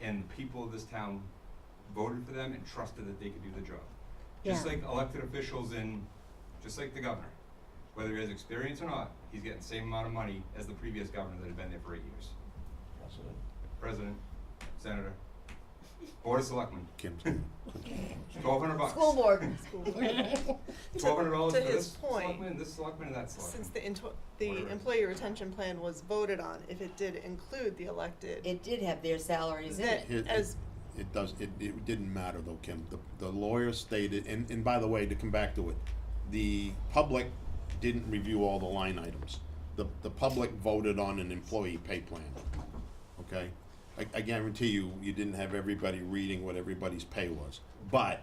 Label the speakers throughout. Speaker 1: and the people of this town voted for them and trusted that they could do the job. Just
Speaker 2: Yeah.
Speaker 1: like elected officials in, just like the governor, whether he has experience or not, he's getting the same amount of money as the previous governor that had been there for eight years. President, senator, board of selectmen,
Speaker 3: Kim's
Speaker 1: twelve hundred bucks.
Speaker 2: School board.
Speaker 1: Twelve hundred dollars for
Speaker 4: To his
Speaker 1: this
Speaker 4: point,
Speaker 1: selectman, this selectman, and that selectman.
Speaker 4: Since the into, the
Speaker 1: Whatever.
Speaker 4: employee retention plan was voted on, if it did include the elected,
Speaker 2: It did have their salaries in
Speaker 4: that
Speaker 2: it.
Speaker 3: It-
Speaker 4: as,
Speaker 3: It does, it, it didn't matter though, Kim. The, the lawyer stated, and, and by the way, to come back to it, the public didn't review all the line items. The, the public voted on an employee pay plan, okay? I, I guarantee you, you didn't have everybody reading what everybody's pay was. But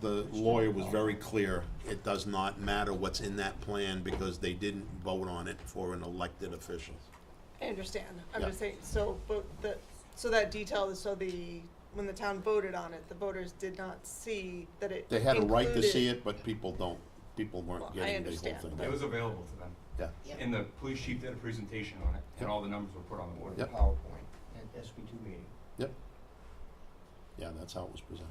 Speaker 3: the lawyer was very clear, it does not matter what's in that plan because they didn't vote on it for an elected official.
Speaker 4: I understand, I'm
Speaker 3: Yeah.
Speaker 4: just saying, so, but the, so that detail is, so the, when the town voted on it, the voters did not see that it
Speaker 3: They had a right to see
Speaker 4: included-
Speaker 3: it, but people don't, people
Speaker 4: Well,
Speaker 3: weren't
Speaker 4: I
Speaker 3: getting the whole thing.
Speaker 4: understand, but-
Speaker 1: It was available to them.
Speaker 3: Yeah.
Speaker 1: And the police chief did a presentation on it, and all the numbers were put on the board.
Speaker 3: Yep.
Speaker 5: PowerPoint at SB two meeting.
Speaker 3: Yep. Yeah, that's how it was presented.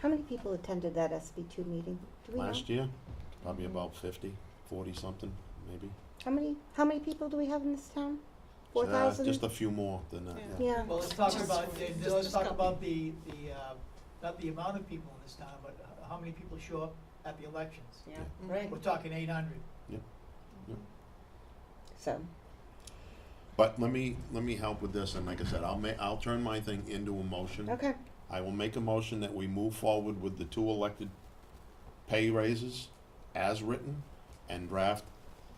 Speaker 6: How many people attended that SB two meeting? Do we know?
Speaker 3: Last year, probably about 50, 40 something, maybe.
Speaker 6: How many, how many people do we have in this town? Four
Speaker 3: Uh,
Speaker 6: thousand?
Speaker 3: Just a few more than that,
Speaker 4: Yeah.
Speaker 3: yeah.
Speaker 6: Yeah,
Speaker 7: Well, let's talk
Speaker 4: Just-
Speaker 7: about,
Speaker 4: just-
Speaker 7: let's
Speaker 4: just
Speaker 7: talk
Speaker 4: couple.
Speaker 7: about the, the, uh, not the amount of people in this town, but h- how many people show up at the elections.
Speaker 3: Yeah.
Speaker 2: Right.
Speaker 7: We're talking eight hundred.
Speaker 4: Mm-hmm.
Speaker 6: so,
Speaker 3: But let me, let me help with this, and like I said, I'll ma, I'll turn my thing into a motion.
Speaker 6: okay,
Speaker 3: I will make a motion that we move forward with the two elected pay raises as written and draft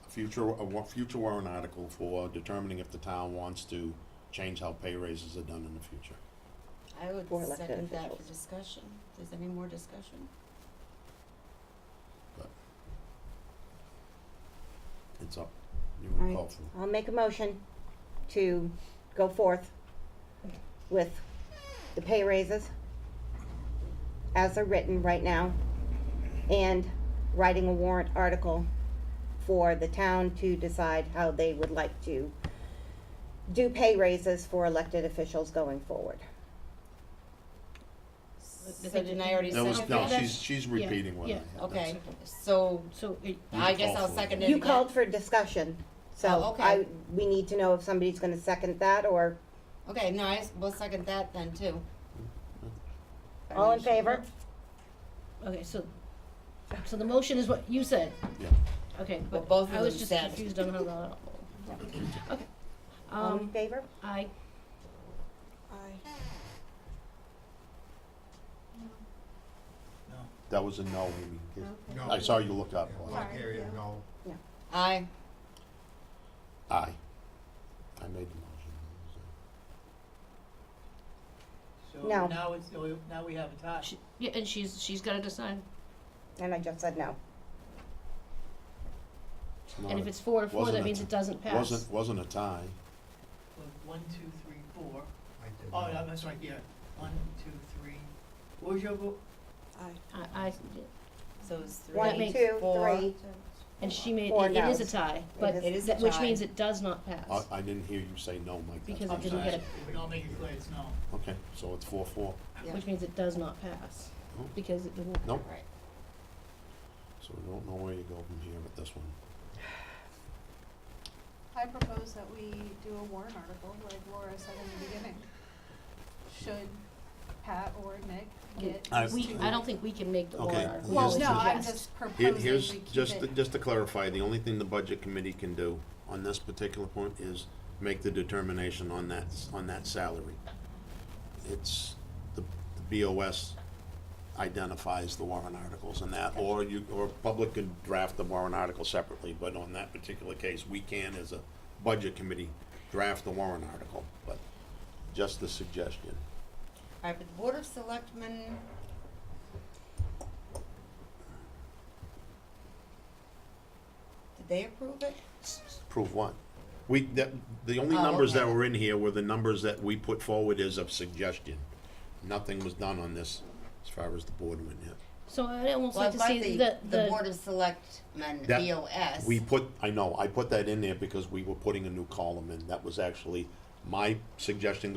Speaker 3: a future, a wa- future warrant article for determining if the town wants to change how pay raises are done in the future.
Speaker 8: I would
Speaker 6: For elected
Speaker 8: second that for
Speaker 6: officials.
Speaker 8: discussion. Is there any more discussion?
Speaker 3: It's up. You want to
Speaker 6: Alright.
Speaker 3: call for it?
Speaker 6: I'll make a motion to go forth with the pay raises as are written right now and writing a warrant article for the town to decide how they would like to do pay raises for elected officials going forward.
Speaker 8: So didn't I already
Speaker 3: That
Speaker 8: second
Speaker 3: was,
Speaker 8: that?
Speaker 3: no,
Speaker 9: that's-
Speaker 3: she's, she's
Speaker 9: yeah,
Speaker 3: repeating what I
Speaker 9: yeah.
Speaker 3: had.
Speaker 8: Okay, so
Speaker 9: So it,
Speaker 8: I
Speaker 3: can
Speaker 8: guess
Speaker 3: call
Speaker 8: I'll
Speaker 3: for it.
Speaker 8: second it
Speaker 6: You
Speaker 8: again.
Speaker 6: called for discussion,
Speaker 8: Oh,
Speaker 6: so
Speaker 8: okay.
Speaker 6: I, we need to know if somebody's gonna second that or,
Speaker 8: Okay, no, I s- will second that then too.
Speaker 6: all in favor?
Speaker 9: okay, so, so the motion is what you said,
Speaker 3: Yeah,
Speaker 9: okay,
Speaker 8: Well,
Speaker 9: but
Speaker 8: both of
Speaker 9: I was
Speaker 8: them
Speaker 9: just
Speaker 8: said.
Speaker 9: confused on how that, okay.
Speaker 6: All in
Speaker 9: Um,
Speaker 6: favor?
Speaker 9: I,
Speaker 4: I,
Speaker 7: No.
Speaker 3: that was a no, Amy.
Speaker 5: No.
Speaker 3: I saw you look up.
Speaker 5: Yeah,
Speaker 3: Aye.
Speaker 5: Lock area, no.
Speaker 8: Aye.
Speaker 3: Aye. I made the motion.
Speaker 6: No.
Speaker 7: So now it's, now we have a tie.
Speaker 9: she, yeah, and she's, she's gotta decide,
Speaker 6: And I just said no.
Speaker 3: not
Speaker 9: and
Speaker 3: a-
Speaker 9: if it's four to four,
Speaker 3: wasn't a
Speaker 9: that means
Speaker 3: tie.
Speaker 9: it doesn't pass.
Speaker 3: Wasn't, wasn't a tie.
Speaker 7: One, two, three, four.
Speaker 5: I did
Speaker 7: Oh,
Speaker 5: not.
Speaker 7: no, that's right, yeah. One, two, three. What was your vote?
Speaker 4: I.
Speaker 9: I, I,
Speaker 8: So it's three,
Speaker 6: One, two,
Speaker 8: four.
Speaker 6: three.
Speaker 9: and she made,
Speaker 6: Four
Speaker 9: it it is a
Speaker 6: noes.
Speaker 9: tie, but,
Speaker 6: is
Speaker 8: It is a
Speaker 9: that- which
Speaker 8: tie.
Speaker 9: means it does not pass.
Speaker 3: I, I didn't hear you say no, Mike. That's
Speaker 9: Because
Speaker 3: what
Speaker 9: it
Speaker 3: I'm
Speaker 9: didn't get
Speaker 3: saying.
Speaker 9: a,
Speaker 7: I'll make it clear, it's no.
Speaker 3: Okay, so it's four, four.
Speaker 8: Yeah.
Speaker 9: which means it does not pass,
Speaker 3: Oh.
Speaker 9: because it didn't.
Speaker 3: Nope,
Speaker 8: Right.
Speaker 3: so we don't know where you go from here with this one.
Speaker 10: I propose that we do a warrant article, like Laura said in the beginning. Should Pat or Nick get?
Speaker 3: I-
Speaker 10: these
Speaker 9: We,
Speaker 10: two-
Speaker 9: I don't think we can make the
Speaker 3: Okay,
Speaker 9: warrant article.
Speaker 3: Well,
Speaker 10: Well,
Speaker 3: here's
Speaker 10: no,
Speaker 3: the-
Speaker 10: I'm just
Speaker 3: Here-
Speaker 10: proposing
Speaker 3: Here's,
Speaker 10: we keep
Speaker 3: just, to-
Speaker 10: it.
Speaker 3: just to clarify, the only thing the budget committee can do on this particular point is make the determination on that, on that salary. It's, the the BOS identifies the warrant articles and that, or you, or public could draft the warrant article separately, but on that particular case, we can, as a budget committee, draft the warrant article, but just the suggestion.
Speaker 8: Alright, but the Board of Selectmen. Did they approve it?
Speaker 3: Prove what? We, that, the only
Speaker 8: Oh,
Speaker 3: numbers that
Speaker 8: okay.
Speaker 3: were in here were the numbers that we put forward as a suggestion. Nothing was done on this as far as the board went yet.
Speaker 9: So I'd almost
Speaker 8: Well, I
Speaker 9: like to
Speaker 8: thought
Speaker 9: see
Speaker 8: the,
Speaker 9: the,
Speaker 8: the Board of Selectmen,
Speaker 3: That-
Speaker 8: BOS.
Speaker 3: We put, I know, I put that in there because we were putting a new column in. That was actually my suggestion